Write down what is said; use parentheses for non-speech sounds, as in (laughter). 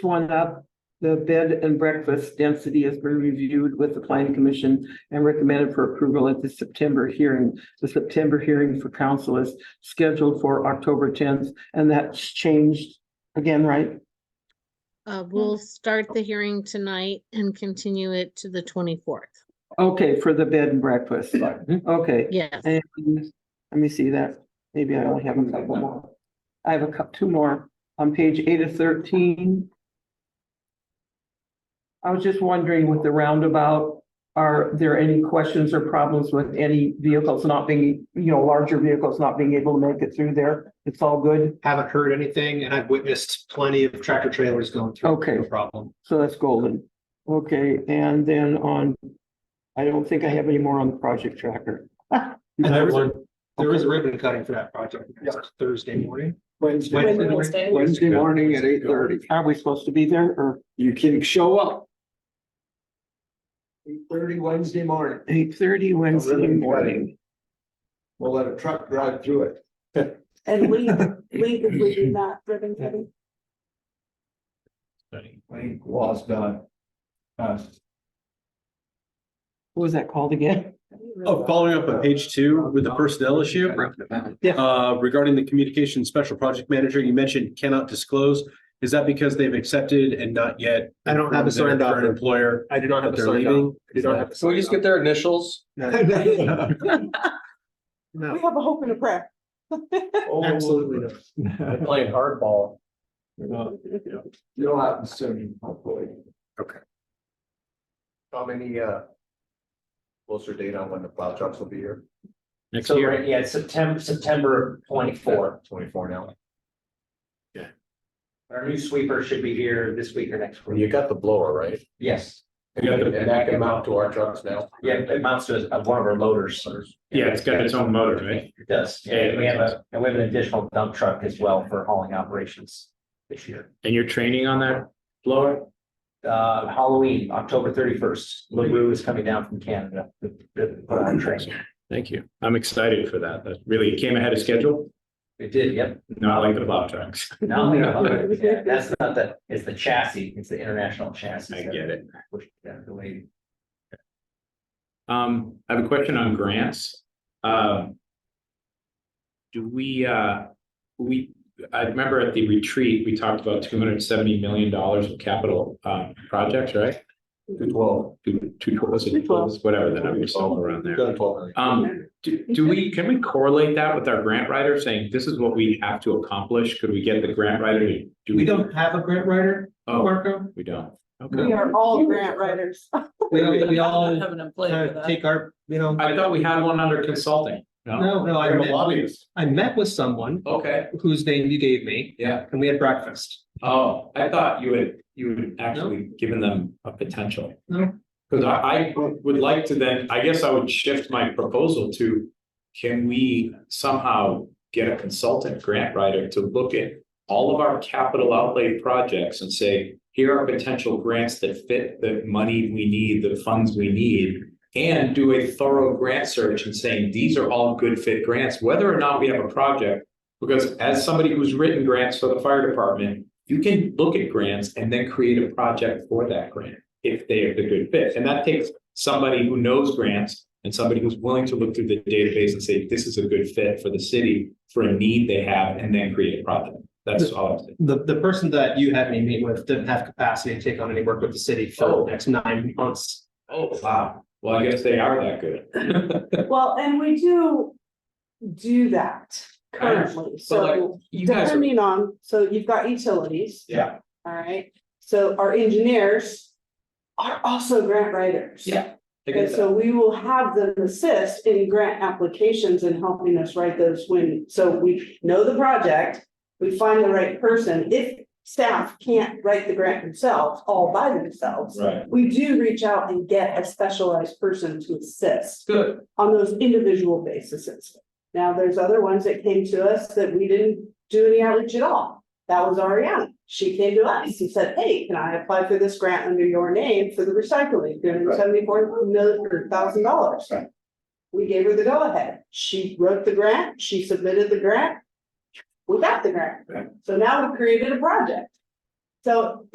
one up, the bed and breakfast density has been reviewed with the planning commission and recommended for approval at the September hearing. The September hearing for council is scheduled for October tenth, and that's changed again, right? Uh, we'll start the hearing tonight and continue it to the twenty-fourth. Okay, for the bed and breakfast, okay. Yes, And let me see that. Maybe I only have a couple more. I have a cou- two more on page eight of thirteen. I was just wondering with the roundabout, are there any questions or problems with any vehicles not being, you know, larger vehicles not being able to make it through there? It's all good? Haven't heard anything and I've witnessed plenty of tractor trailers going through. Okay. No problem. So that's golden. Okay, and then on, I don't think I have any more on the project tracker. And there was, a- there was a ribbon cutting for that project Thursday morning. Wednesday, Wednesday. Wednesday morning at eight thirty. Are we supposed to be there or? You can show up. Eight thirty Wednesday morning. Eight thirty Wednesday Ribbon morning. We'll let a truck drive through it. And we, we, we do not ribbon cutting. I think law's done. Uh, What was that called again? Oh, following up on page two with the personnel issue, uh, regarding the communication special project manager, you mentioned cannot disclose. Is that because they've accepted and not yet? I don't have a informed signed their offer. current Employer I do not have that a they're sign off. leaving? I do not have a So we sign just get off. their initials? No, We have a hope and a prayer. Oh, absolutely not. They're Playing hardball. You'll happen soon, hopefully. Okay. How many, uh, closer date on when the plow trucks will be here? Next So, year, right, yeah, it's September, September twenty-four. Twenty-four now. Our new sweeper should be here this week or next You week. got the blower, right? Yes, And that can mount to our trucks now. yeah, it amounts to uh, one of our loaders. Yeah, it's got its own motor, right? It does. And we have a, and we have an additional dump truck as well for hauling operations this year. And you're training on that blower? Uh, Halloween, October thirty-first, LaRue is coming down from Canada to to put on training. Thank you. I'm excited for that. That really came ahead of schedule, It did, yep. not like the plow trucks. No, no, yeah, that's not the, it's the chassis, it's the international chassis. I get it. Which, yeah, the way. Um, I have a question on grants. Um. Do we, uh, we, I remember at the retreat, we talked about two hundred seventy million dollars of capital, um, projects, right? Twelve. Two, two, was it, whatever the numbers all around there. Twelve. Um, do, do we, can we correlate that with our grant writer saying this is what we have to accomplish? Could we get the grant writer to? do- we don't have a grant writer, Oh, Marco. we don't. We Okay. are all grant writers. We, we all kind of take our, you know, I thought we had one under consulting. no, no, I I'm a met, lobbyist. I met with someone Okay, whose name you gave me yeah. and we had breakfast. Oh, I thought you had, you had actually given them a potential. No. Cause I, I would like to then, I guess I would shift my proposal to, can we somehow get a consultant grant writer to look at all of our capital outlay projects and say, here are potential grants that fit the money we need, the funds we need, and do a thorough grant search and saying, these are all good fit grants, whether or not we have a project. Because as somebody who's written grants for the fire department, you can look at grants and then create a project for that grant if they are the good fit. And that takes somebody who knows grants and somebody who's willing to look through the database and say, this is a good fit for the city for a need they have and then create a project. That's all I'm saying. The, the person that you had me meet with didn't have capacity to take on any work with the city for the next nine months. Oh, wow. Well, I guess they are that good. (laughs) Well, and we do do that currently, so You guys are, depending on, so you've got utilities. Yeah. All right, so our engineers are also grant writers. Yeah. I And get that. so we will have them assist in grant applications and helping us write those when, so we know the project. We find the right person. If staff can't write the grant themselves, all by themselves. Right. We do reach out and get a specialized person to assist Good. on those individual basis. Now, there's other ones that came to us that we didn't do any outreach at all. That was Ariana. She came to us and said, hey, can I apply for this grant under your name for the recycling, three hundred seventy-four million, thousand dollars? Right. We gave her the go-ahead. She wrote the grant, she submitted the grant. We got the grant. Right. So now we created a project. So